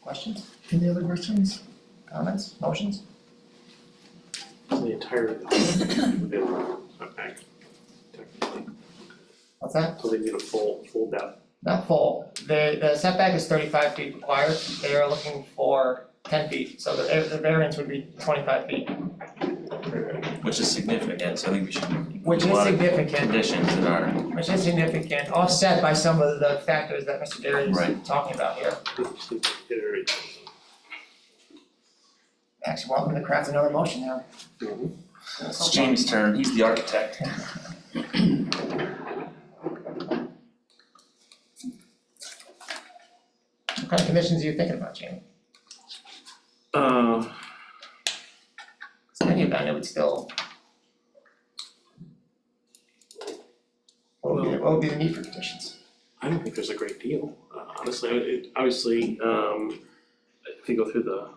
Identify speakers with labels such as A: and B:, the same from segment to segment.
A: Questions? Any other questions? Comments? Motions?
B: The entire, available, okay, technically,
A: What's that?
B: so they need a full, full depth.
A: Not full. The, the setback is thirty-five feet required. They are looking for ten feet, so the, the variance would be twenty-five feet,
C: Which is significant, so I think we should. include
A: which
C: a
A: is
C: lot of
A: significant,
C: Conditions that are,
A: which is significant, offset by some of the factors that Mr. Derry
C: Right.
A: is talking about here.
B: Just need to iterate.
D: Mm-hmm.
A: Actually, welcome to craft another motion now.
C: it's James' turn, he's the architect.
A: What kind of conditions are you thinking about, Jamie?
B: Uh,
A: So in any event, it would still. What would be, the- what would be the need for conditions?
B: I don't think there's a great deal, uh, honestly, I- it, obviously, um, if you go through the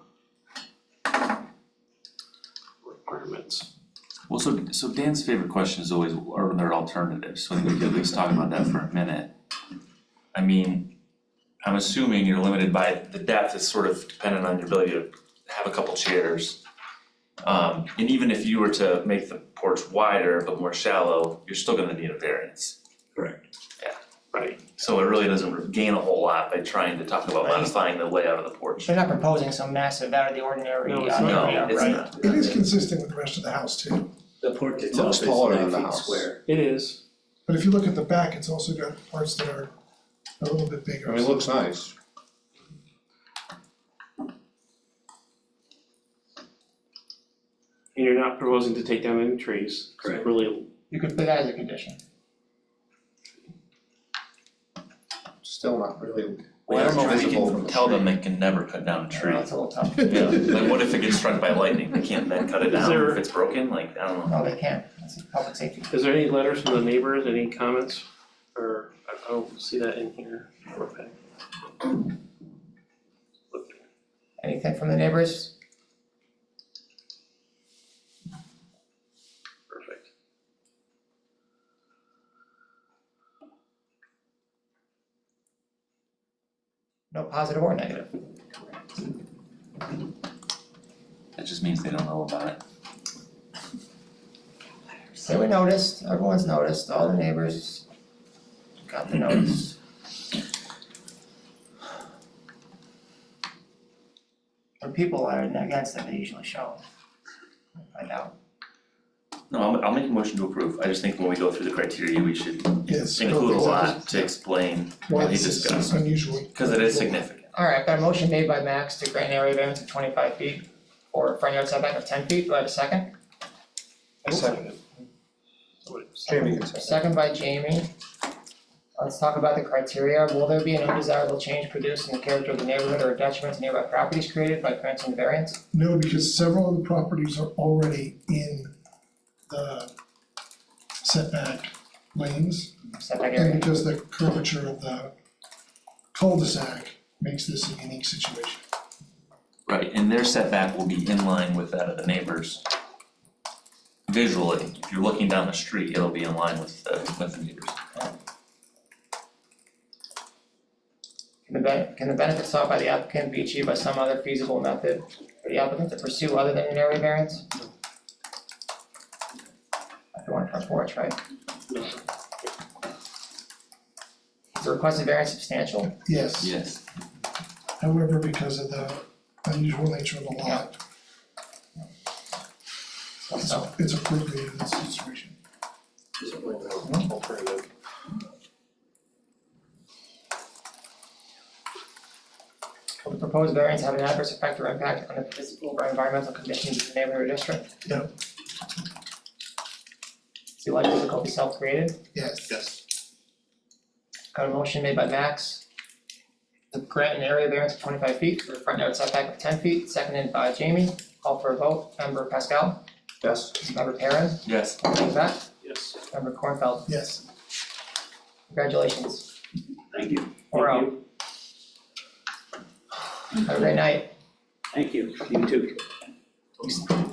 B: requirements,
C: Well, so, so Dan's favorite question is always, are there alternatives? So I think we could at least talk about that for a minute. I mean, I'm assuming you're limited by, the depth is sort of dependent on your ability to have a couple chairs. Um, and even if you were to make the porch wider but more shallow, you're still gonna need a variance.
B: right?
C: So it really doesn't gain a whole lot by trying to talk about
A: Right.
C: modifying the layout of the porch.
A: You're not proposing some massive out of the ordinary uh,
B: No,
A: area,
B: it's
A: right?
B: not.
C: No, it's not.
E: It is consistent with the rest of the house too,
F: The porch
D: itself is nine feet
F: square.
B: It is,
E: but if you look at the back, it's also got parts that are a little bit bigger.
D: I mean, it looks nice.
B: and you're not proposing to take down any trees, so
F: Correct.
B: really,
A: You could put that as a condition.
D: Still not really.
C: Well, I don't know if we
D: Visible from
C: can
D: the
C: tell them
D: street.
C: they can never cut down a tree.
A: That's a little tough.
C: Yeah, like what if it gets struck by lightning, they can't then cut
B: Is
C: it down
B: there-
C: if it's broken, like, I don't know.
A: No, they can't. That's a public safety.
B: is there any letters from the neighbors, any comments? Or, I I don't see that in here, okay.
A: Anything from the neighbors?
B: Perfect.
A: No positive or negative?
C: That just means they don't know about it.
A: So we noticed, everyone's noticed, all the neighbors got the notice. The people are against it, they usually show. I know.
C: No, I'll, I'll make a motion to approve, I just think when we go through the criteria, we should
E: Yes.
C: include a lot to explain
E: Why
C: what he
E: this is
C: discussed,
E: unusual.
C: cause it is significant.
A: Alright, I've got a motion made by Max to grant an area variance of twenty-five feet or front yard setback of ten feet, do I have a second?
D: I second it. Jamie can second.
A: Second by Jamie. Let's talk about the criteria, will there be an undesirable change produced in the character of the neighborhood or detriment to nearby properties created by granting the variance?
E: No, because several of the properties are already in the setback lanes.
A: Setback area.
E: And because the curvature of the cul-de-sac makes this a unique situation.
C: Right, and their setback will be in line with that of the neighbors. Visually, if you're looking down the street, it'll be in line with the, with the neighbors.
A: Can the ben- can the benefit sought by the applicant be achieved by some other feasible method for the applicant to pursue other than an area variance? If you want a front porch, right?
B: No.
A: Is the requested variance substantial?
E: Yes,
C: Yes.
E: however, because of the unusual nature of the lot, it's
A: So,
E: it's appropriate in this situation.
B: Alternative.
A: will the proposed variance have an adverse effect or impact on the physical or environmental conditions of the neighborhood or district?
E: No.
A: Is the life difficulty self-created?
E: Yes.
B: Yes.
A: Got a motion made by Max to grant an area variance of twenty-five feet for a front yard setback of ten feet, seconded by Jamie. Call for a vote, member Pascal,
D: Yes.
A: member Perrin,
C: Yes,
A: member Beck,
B: Yes.
A: member Cornfeld,
E: Yes,
A: congratulations.
F: Thank you.
A: Four
B: Thank
A: oh,
B: you.
A: have a great night.
F: Thank you, you too.